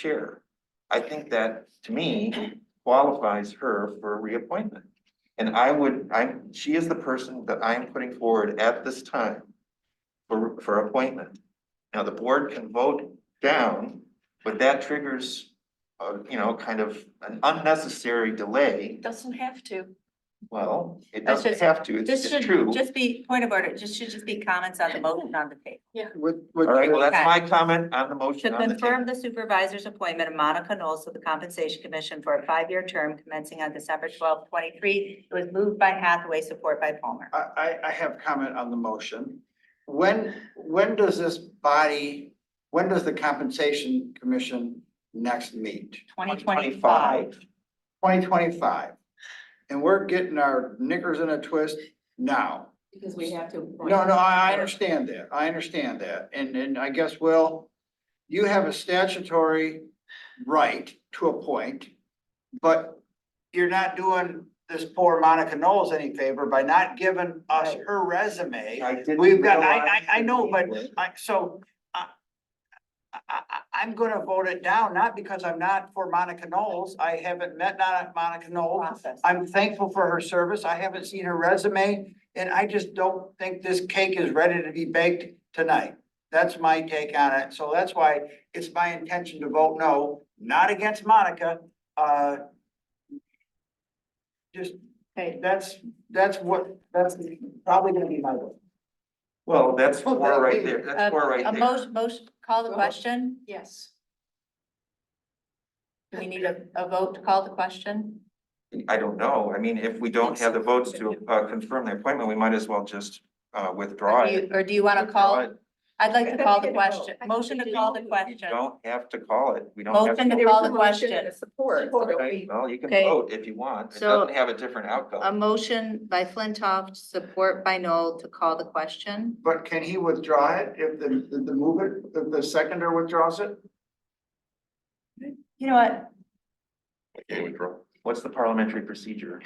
chair. I think that, to me, qualifies her for reappointment. And I would, I, she is the person that I'm putting forward at this time for, for appointment. Now, the board can vote down, but that triggers, uh, you know, kind of an unnecessary delay. Doesn't have to. Well, it That's doesn't just- have to, it's This it's should true. just be, point of order, just should just be comments on the motion on the table. What, All right, well, what, that's my comment on the motion To on the table. confirm the supervisor's appointment of Monica Knowles to the Compensation Commission for a five-year term commencing on December twelfth, twenty-three. It was moved by Hathaway, support by Palmer. I, I, I have comment on the motion. When, when does this body, when does the compensation commission next meet? Twenty twenty-five. Twenty twenty-five. And we're getting our knickers in a twist now. Because we have to. No, no, I, I understand that. I understand that. And, and I guess, Will, you have a statutory right to appoint, but you're not doing this poor Monica Knowles any favor by not giving us her resume. I didn't We've got- I- realize I- I know, that- I, so, I, I, I, I'm gonna vote it down, not because I'm not for Monica Knowles. I haven't met not Monica Knowles. Process. I'm thankful for her service. I haven't seen her resume, and I just don't think this cake is ready to be baked tonight. That's my take on it. So that's why it's my intention to vote no, not against Monica, uh. Just, Okay. that's, that's what, that's probably gonna be my vote. Well, that's four that'll right be- there, that's four right A there. motion, motion, call the question. Yes. Do we need a, a vote to call the question? I don't know, I mean, if we don't have the votes to uh confirm the appointment, we might as well just uh withdraw Or do it. you, or do you want to call? Withdraw it? it. I'd like to I call think the we need a vote. question, I think motion we to need call a the vote. You question. don't have to call it, we don't have. Motion to- to There was call a the motion and question. a support. so it'll Okay, be- Well, you can Okay. vote if you want, it So- um, doesn't have a different A outcome. motion by Flintoff, support by Noel to call the question. But can he withdraw it if the, the- the move it, if the seconder withdraws it? You know what? What's the parliamentary procedure?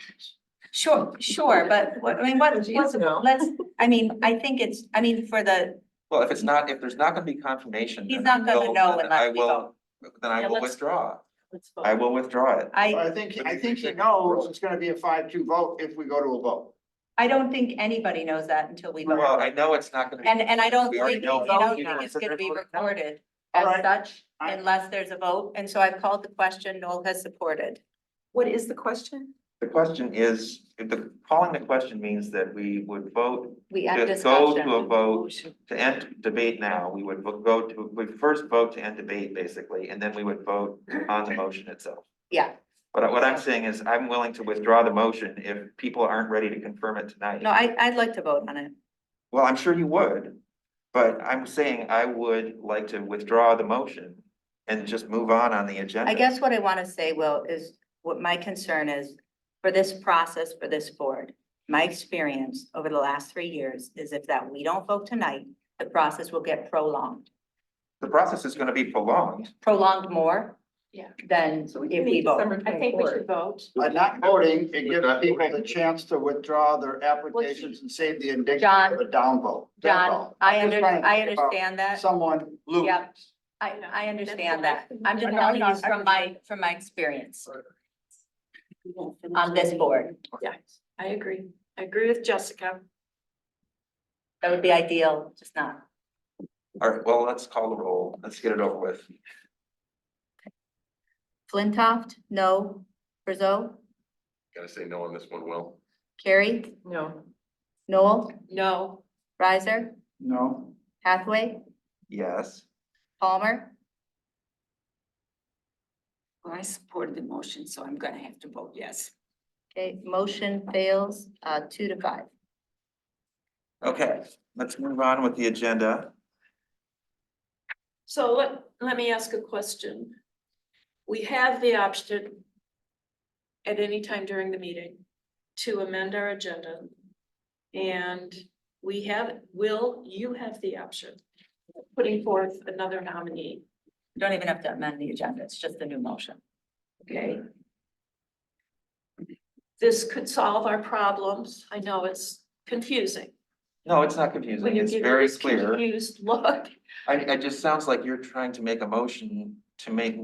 Sure, sure, but what, I mean, what, what's, No. let's, I mean, I think it's, I mean, for the, Well, if it's not, if there's not gonna be confirmation. He's then not gonna I'll- know then unless I we will- Then I Yeah, will let's- withdraw, Let's I vote. will withdraw it. I, I think, I think he knows it's gonna be a five-two vote if we go to a vote. I don't think anybody knows that until we Well, I vote. know it's not gonna. be- And, and I don't We think, already and know. I don't think it's gonna be recorded as Alright. such I- unless there's a vote. And so I've called the question, Noel has supported. What is the question? The question is, if the, calling the question means that we would vote We to have go to a discussion. vote to end debate now, we would vo- go to, we first vote to end debate basically, and then we would vote on the motion itself. Yeah, But what I'm saying is I'm willing to withdraw the motion if people aren't ready to confirm it tonight. no, I, I'd like to vote on it. Well, I'm sure you would, but I'm saying I would like to withdraw the motion and just move on on the agenda. I guess what I want to say, Will, is what my concern is for this process, for this board. My experience over the last three years is if that we don't vote tonight, the process will get prolonged, The process is gonna be prolonged. prolonged more. Yeah. Than So we if can we meet vote. December twenty-fourth. vote. By not voting, it gives not people the voting. chance to withdraw their applications and save the indignity John, of a down vote. That's John, all. I I'm just under, trying to I think about understand that. Someone lose. Yep. I, No, I understand that. that's- I'm just No, no, telling no, you I from my, from my experience. On this board. Yeah, I agree. I agree with Jessica. That would be ideal, just not. All right, well, let's call the roll. Let's get it over with. Flintoff, no. Brzo, Gotta say no on this one, Will. Carrie, No. Noel, Mm-hmm. No, Riser, No, Hathaway, Yes. Palmer. well, I supported the motion, so I'm gonna have to vote yes. Okay, motion fails, uh, two to five. Okay, let's move on with the agenda. so let, let me ask a question. We have the option at any time during the meeting to amend our agenda. And we have, will, you have the option of putting forth another nominee, You Don't even have to amend the agenda, it's just the new motion. okay? This could solve our problems. I know it's confusing. No, it's not When confusing. you It's give very this clear. Confused look. I, I just sounds like you're trying to make a motion to make